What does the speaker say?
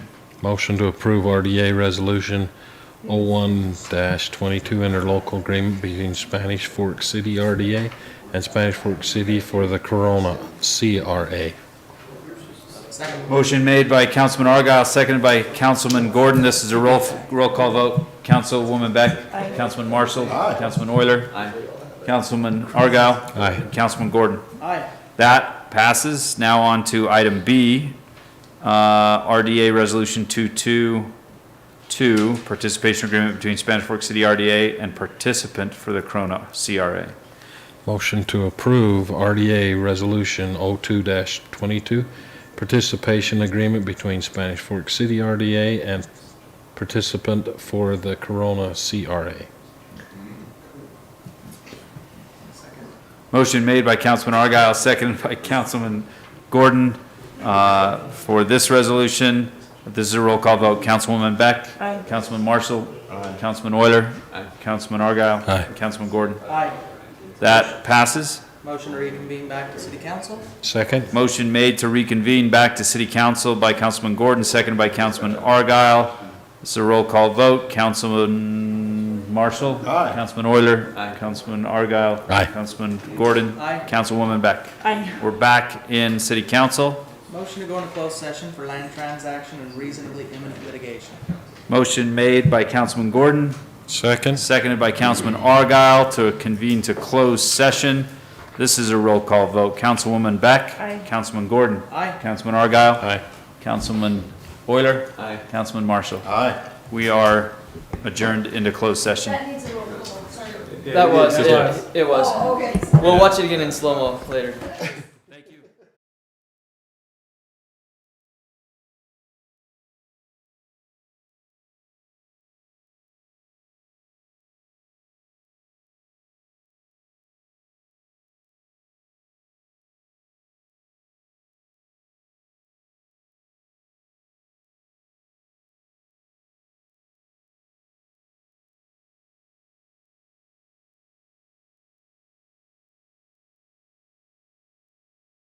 Motion to approve RDA Resolution 01-22 interlocal agreement between Spanish Fork City RDA and Spanish Fork City for the Corona CRA. Motion made by Councilman Argyle, seconded by Councilman Gordon. This is a roll, roll call vote. Councilwoman Beck. Councilman Marshall. Councilman Euler. Councilman Argyle. Aye. Councilman Gordon. Aye. That passes. Now on to item B, uh, RDA Resolution 222, participation agreement between Spanish Fork City RDA and participant for the Corona CRA. Motion to approve RDA Resolution 02-22 participation agreement between Spanish Fork City RDA and participant for the Corona CRA. Motion made by Councilman Argyle, seconded by Councilman Gordon uh, for this resolution. This is a roll call vote. Councilwoman Beck. Aye. Councilman Marshall. Councilman Euler. Councilman Argyle. Aye. Councilman Gordon. Aye. That passes. Motion to reconvene back to city council? Second? Motion made to reconvene back to City Council by Councilman Gordon, seconded by Councilman Argyle. This is a roll call vote. Councilman Marshall. Aye. Councilman Euler. Councilman Argyle. Aye. Councilman Gordon. Aye. Councilwoman Beck. Aye. We're back in City Council. Motion to go into closed session for land transaction and reasonably imminent litigation. Motion made by Councilman Gordon, Second? seconded by Councilman Argyle to convene to close session. This is a roll call vote. Councilwoman Beck. Aye. Councilman Gordon. Aye. Councilman Argyle. Aye. Councilman Euler. Aye. Councilman Marshall. Aye. We are adjourned into closed session. That needs a roll call, sorry. That was, it, it was. Oh, okay. We'll watch it again in slow-mo later.